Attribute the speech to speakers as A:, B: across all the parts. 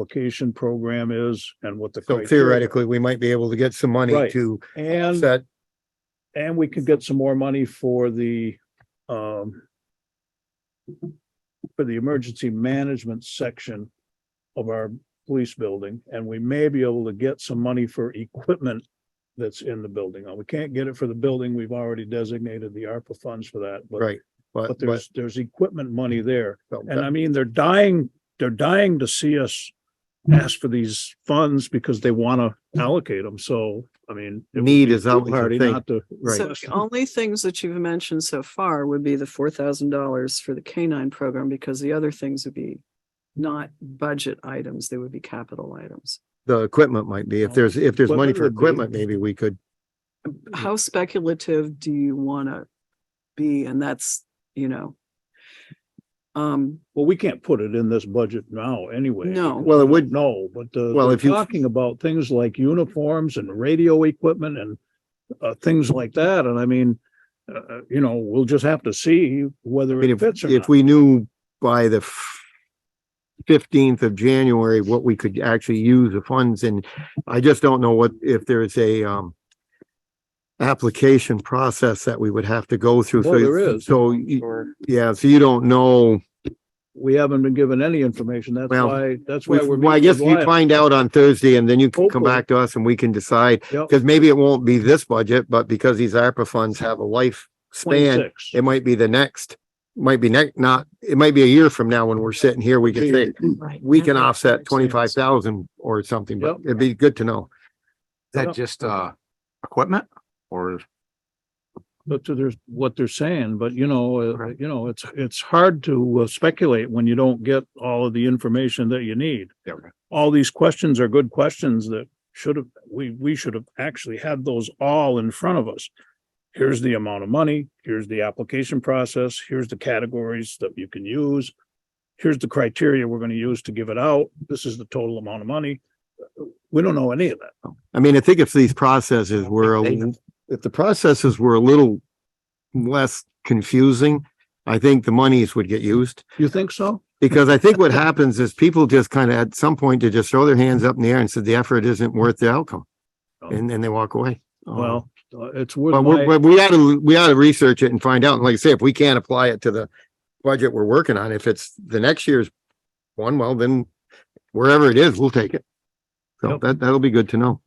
A: application program is and what the.
B: So
A: criteria-
B: theoretically, we might be able to get some money
A: Right.
B: to
A: And,
B: set,
A: and we could get some more money for the, um, for the emergency management section of our police building, and we may be able to get some money for equipment that's in the building. Now, we can't get it for the building. We've already designated the ARPA funds for that, but
B: right, but,
A: But
B: but.
A: there's, there's equipment money there.
B: so
A: And
B: that-
A: I mean, they're dying, they're dying to see us ask for these funds because they want to allocate them. So, I mean. it would
B: Need
A: be
B: is always the
A: foolhardy
B: thing,
A: not to-
B: Right,
C: So the only things that you've mentioned so far would be the four thousand dollars for the canine program, because the other things would be not budget items, they would be capital items.
B: the equipment might be, if there's, if there's money for
A: Equipment would
B: equipment,
A: be-
B: maybe we could,
C: How speculative do you want to be? And that's, you know. Um,
A: Well, we can't put it in this budget now anyway.
C: no,
B: well, it would,
A: No, but uh,
B: Well,
A: they're
B: if you-
A: Talking about things like uniforms and radio equipment and uh, things like that. And I mean, uh, uh, you know, we'll just have to see
B: I
A: whether
B: mean,
A: it
B: if,
A: fits or
B: if
A: not.
B: we knew by the fifteenth of January, what we could actually use the funds and I just don't know what, if there is a, um, application process that we would have to go through.
A: Well,
B: So-
A: there is.
B: So, you- yeah, so you don't know.
A: We haven't been given any information. That's
B: Well,
A: why, that's why we're.
B: Well, I
A: being
B: guess you
A: reliant.
B: find out on Thursday and then you can come
A: Hopefully.
B: back to us and we can decide,
A: Yep.
B: because maybe it won't be this budget, but because these ARPA funds have a life span,
A: 26.
B: it might be the next, might be next, not, it might be a year from now when we're sitting here, we can say,
C: right.
B: we can offset twenty-five thousand or something,
A: Yep.
B: but it'd be good to know.
D: Is
A: Yep.
D: that just, uh, equipment or?
A: But to their, what they're saying, but you know, uh,
D: Okay.
A: you know, it's, it's hard to uh, speculate when you don't get all of the information that you need.
D: yeah, okay.
A: All these questions are good questions that should have, we, we should have actually had those all in front of us. Here's the amount of money, here's the application process, here's the categories that you can use. Here's the criteria we're going to use to give it out. This is the total amount of money. We don't know any of that.
B: I mean, I think if these processes
D: think
B: were, a
D: they
B: l- if the processes were a little less confusing, I think the monies would get used.
A: You think so?
B: Because I think what happens is people just kind of at some point to just throw their hands up in the air and said the effort isn't worth the outcome. And then they walk away. Um,
A: Oh. Well, uh, it's
B: But
A: worth. my-
B: we're, but we ought to, we ought to research it and find out. And like I say, if we can't apply it to the budget we're working on, if it's the next year's one, well, then wherever it is, we'll take it. So
A: Yep.
B: that, that'll be good to know.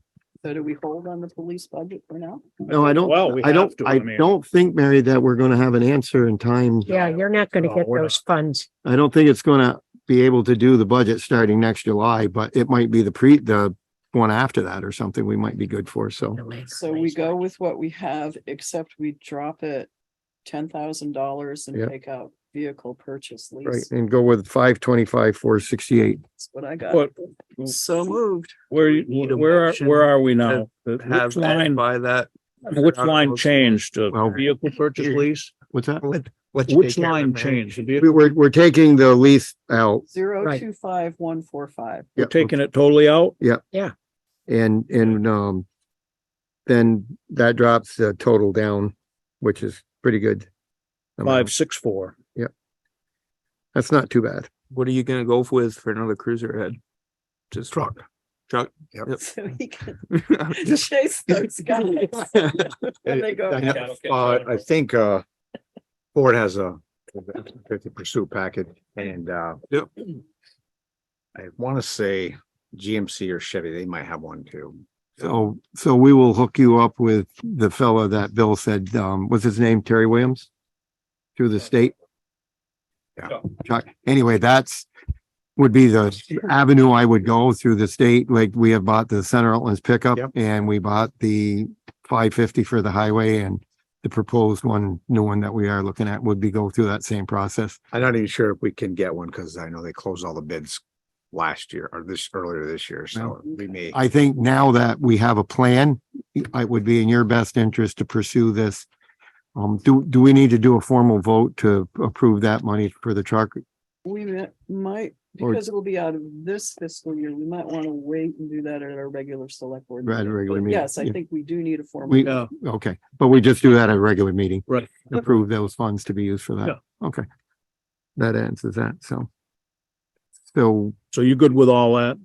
C: So do we hold on the police budget for now?
B: No, I
A: Well, we
B: don't, I
A: have
B: don't,
A: to, I
B: I
A: mean-
B: don't think, Mary, that we're going to have an answer in time.
E: Yeah, you're not gonna
A: No,
E: get
A: we're not.
E: those funds.
B: I don't think it's gonna be able to do the budget starting next July, but it might be the pre, the one after that or something we might be good for, so.
C: So we go with what we have, except we drop it ten thousand dollars
B: Yeah.
C: and take out vehicle purchase
B: Right,
C: lease.
B: and go with five twenty-five, four sixty-eight.
C: That's what I got.
A: But
C: So moved.
A: where,
F: need
A: you-
F: a
A: where, are-
F: motion
A: where are we now? Which
F: have
A: line,
F: and by that.
A: which line changed? Uh,
B: Well,
A: Vehicle purchase
F: here.
A: lease?
B: What's that?
F: Which,
A: Which line changed? The
B: We,
A: vehicle-
B: we're, we're taking the lease out
C: Zero
E: Right.
C: two five one four five.
A: We're
B: yeah,
A: taking it totally out?
B: and, and, um, then that drops the total down, which is pretty good. amount.
A: Five, six, four.
B: That's not too bad.
F: What are you gonna go with for another cruiser head? Just truck. Truck. Yep.
C: So he can
F: Just-
C: chase those guys. When they go.
D: I know, Uh, I think, uh, Ford has a fifty pursuit package and, uh,
F: Yep.
D: I want to say GMC or Chevy, they might have one too.
B: So, so we will hook you up with the fellow that Bill said, um, what's his name? Terry Williams? Through the state?
D: Yeah.
B: Chuck, anyway, that's, would be the avenue I would go through the state. Like we have bought the Center Outlands pickup
D: Yep.
B: and we bought the five fifty for the highway and the proposed one, new one that we are looking at would be go through that same process.
D: I'm not even sure if we can get one because I know they closed all the bids last year or this, earlier this year, so we may.
B: I think now that we have a plan, it would be in your best interest to pursue this. Um, do, do we need to do a formal vote to approve that money for the truck?
C: We mi- might,
B: Or-
C: because it'll be out of this fiscal year, we might want to wait and do that at our regular select board.
B: Right,
C: meeting.
B: regular
C: But
B: meeting,
C: Yes, I
B: yeah.
C: think we do need a formal.
B: We,
A: Yeah,
B: okay, but we just do that at a regular meeting.
A: Right.
B: Approve those funds to be used for that. Okay. That answers that, so. So
A: So you good with all that?